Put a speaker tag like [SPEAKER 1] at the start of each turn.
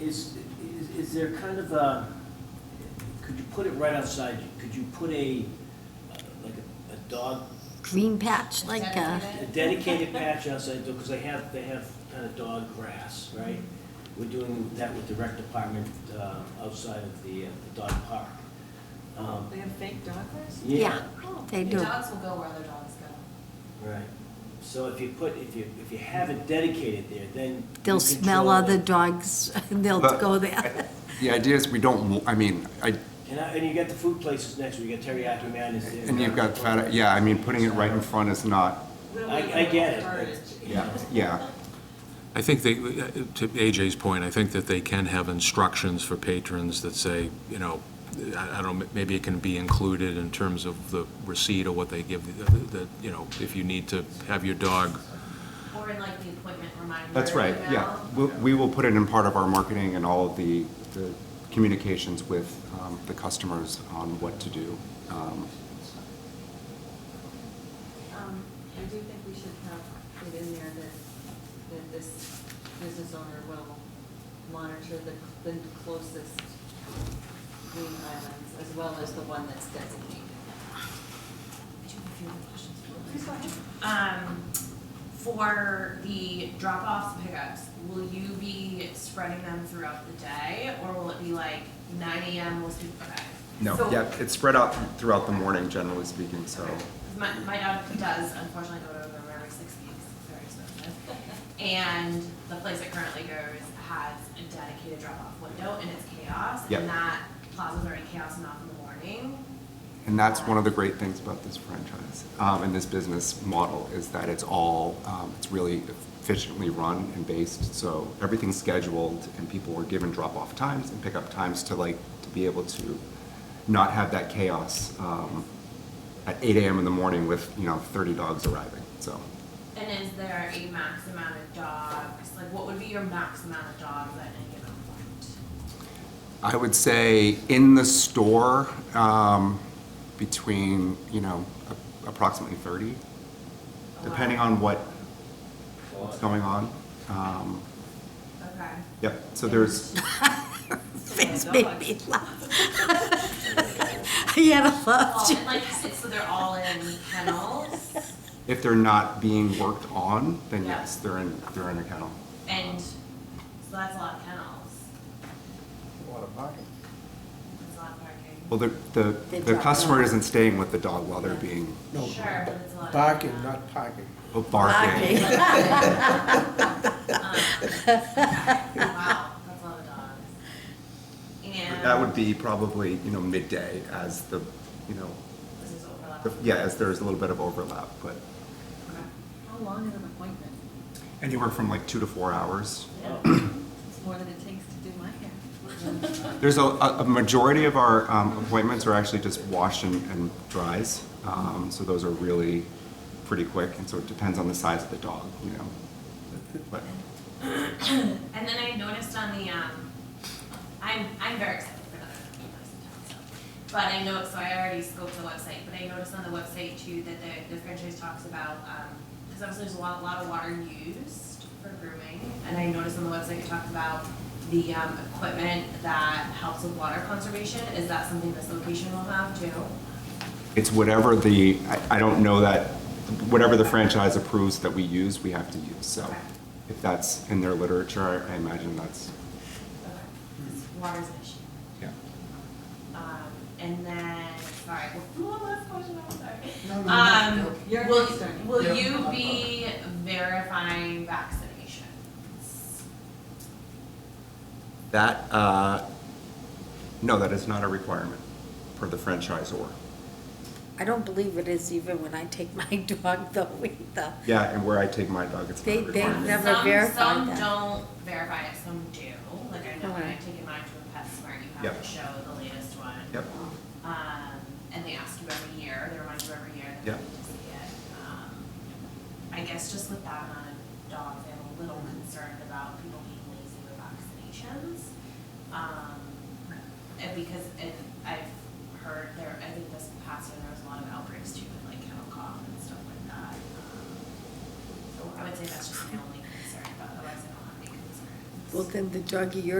[SPEAKER 1] Is, is, is there kind of a, could you put it right outside you? Could you put a, uh, like a, a dog,
[SPEAKER 2] green patch, like, uh,
[SPEAKER 1] a dedicated patch outside though, because they have, they have kind of dog grass, right? We're doing that with the rec department, uh, outside of the, uh, the dog park. Um,
[SPEAKER 3] They have fake dog grass?
[SPEAKER 2] yeah, they
[SPEAKER 3] Your
[SPEAKER 2] do.
[SPEAKER 3] dogs will go where other dogs go.
[SPEAKER 1] Right. So if you put, if you, if you have it dedicated there, then. you
[SPEAKER 2] They'll smell
[SPEAKER 1] control
[SPEAKER 2] other
[SPEAKER 1] it.
[SPEAKER 2] dogs, they'll
[SPEAKER 4] But-
[SPEAKER 2] go there.
[SPEAKER 4] The idea is we don't, wa- I mean, I,
[SPEAKER 1] And, I- and you got the food places next, you got teriyaki man is there.
[SPEAKER 4] and you've got fat, yeah, I mean, putting it right in front is not,
[SPEAKER 1] I, I get it.
[SPEAKER 3] Heritage.
[SPEAKER 1] but-
[SPEAKER 4] yeah, yeah.
[SPEAKER 5] I think they, to AJ's point, I think that they can have instructions for patrons that say, you know, I I don't, know, maybe it can be included in terms of the receipt or what they give, that, you know, if you need to have your dog,
[SPEAKER 6] Or in like the appointment reminder.
[SPEAKER 4] That's right, yeah.
[SPEAKER 6] email.
[SPEAKER 4] We, we will put it in part of our marketing and all of the, the communications with um, the customers on what to do. Um,
[SPEAKER 3] Um, I do think we should have it in there that, that this business owner will monitor the, the closest green islands as well as the one that's designated. I do have a few other questions.
[SPEAKER 6] Please go ahead. Um, for the drop-offs, pickups, will you be spreading them throughout the day? Or will it be like nine AM, most people, okay?
[SPEAKER 4] No,
[SPEAKER 6] So-
[SPEAKER 4] yeah, it's spread out throughout the morning, generally speaking, so.
[SPEAKER 6] 'Cause My, my dog does unfortunately go to the room every six weeks, it's very expensive. And the place it currently goes has a dedicated drop-off window and it's chaos.
[SPEAKER 4] Yep.
[SPEAKER 6] And that plaza's already chaos enough in the morning.
[SPEAKER 4] And that's one of the great things about this franchise um, and this business model is that it's all, um, it's really efficiently run and based. So everything's scheduled and people are given drop-off times and pick-up times to like, to be able to not have that chaos um, at 8 AM in the morning with, you know, 30 dogs arriving, so.
[SPEAKER 6] And is there a max amount of dogs? Like, what would be your max amount of dogs at any given point?
[SPEAKER 4] I would say in the store, um, between, you know, a- approximately 30, depending on what what's going on. Um,
[SPEAKER 6] Okay.
[SPEAKER 4] Yep, so there's,
[SPEAKER 2] This made me laugh. He had a laugh.
[SPEAKER 6] Well, and like, it's- so they're all in kennels
[SPEAKER 4] if they're not being worked on, then
[SPEAKER 6] Yeah.
[SPEAKER 4] yes, they're in, they're in a kennel.
[SPEAKER 6] and, so that's a lot of kennels. That's a lot of parking.
[SPEAKER 4] Well, the, the,
[SPEAKER 2] They
[SPEAKER 4] the
[SPEAKER 2] drop
[SPEAKER 4] customer
[SPEAKER 2] them.
[SPEAKER 4] isn't staying with the dog while they're being
[SPEAKER 7] No,
[SPEAKER 6] Sure, but it's a lot of.
[SPEAKER 7] barking,
[SPEAKER 6] kennels.
[SPEAKER 7] not parking.
[SPEAKER 4] barking.
[SPEAKER 6] Um, Wow, that's a lot of dogs. And.
[SPEAKER 4] That would be probably, you know, midday as the, you know,
[SPEAKER 6] This is overlap.
[SPEAKER 4] the- yeah, as there's a little bit of overlap, but
[SPEAKER 6] Okay.
[SPEAKER 3] How long is an appointment?
[SPEAKER 4] anywhere from like two to four hours.
[SPEAKER 3] It's more than it takes to do my hair.
[SPEAKER 4] There's a, a a majority of our um, appointments are actually just wash and, and dries. Um, So those are really pretty quick, and so it depends on the size of the dog, you know. But
[SPEAKER 6] And then I noticed on the, um, I'm, I'm very excited for another place in town, so. But I know, so I already scoped the website, but I noticed on the website too that the, the franchise talks about, um, because obviously there's a lot, lot of water used for grooming. And I noticed on the website it talks about the, um, equipment that helps with water conservation. Is that something this location will have too?
[SPEAKER 4] It's whatever the, I- I don't know that, whatever the franchise approves that we use, we have to use. So if that's in their literature, I I imagine that's,
[SPEAKER 6] Okay. Water's an issue.
[SPEAKER 4] yeah.
[SPEAKER 6] Um, and then, sorry, one last question, I'm sorry.
[SPEAKER 3] No, no, no, no.
[SPEAKER 6] Um,
[SPEAKER 3] You're
[SPEAKER 6] will,
[SPEAKER 3] starting.
[SPEAKER 6] will
[SPEAKER 7] Yeah.
[SPEAKER 6] you be verifying vaccinations?
[SPEAKER 4] That, uh, no, that is not a requirement for the franchisor.
[SPEAKER 2] I don't believe it is even when I take my dog though either.
[SPEAKER 4] Yeah, and where I take my dog, it's not
[SPEAKER 2] They-
[SPEAKER 4] a
[SPEAKER 2] they
[SPEAKER 4] requirement.
[SPEAKER 2] never- verified
[SPEAKER 6] Some, some
[SPEAKER 2] that.
[SPEAKER 6] don't verify it, some do, like I know when I
[SPEAKER 2] Okay.
[SPEAKER 6] take mine to a pet smart, you have
[SPEAKER 4] Yep.
[SPEAKER 6] to show the latest one.
[SPEAKER 4] Yep.
[SPEAKER 6] Um, and they ask you every year, they remind you every year that
[SPEAKER 4] Yep.
[SPEAKER 6] you need to see it. Um, I guess just with that amount of dogs, I'm a little concerned about people being lazy with vaccinations. Um, and because, and I've heard there, I think this past year, there was a lot of outbreaks too, with like kennel cough and stuff like that. Um, So I would say that's just my only concern, but otherwise I don't have any concerns.
[SPEAKER 2] Well, then the doggy you're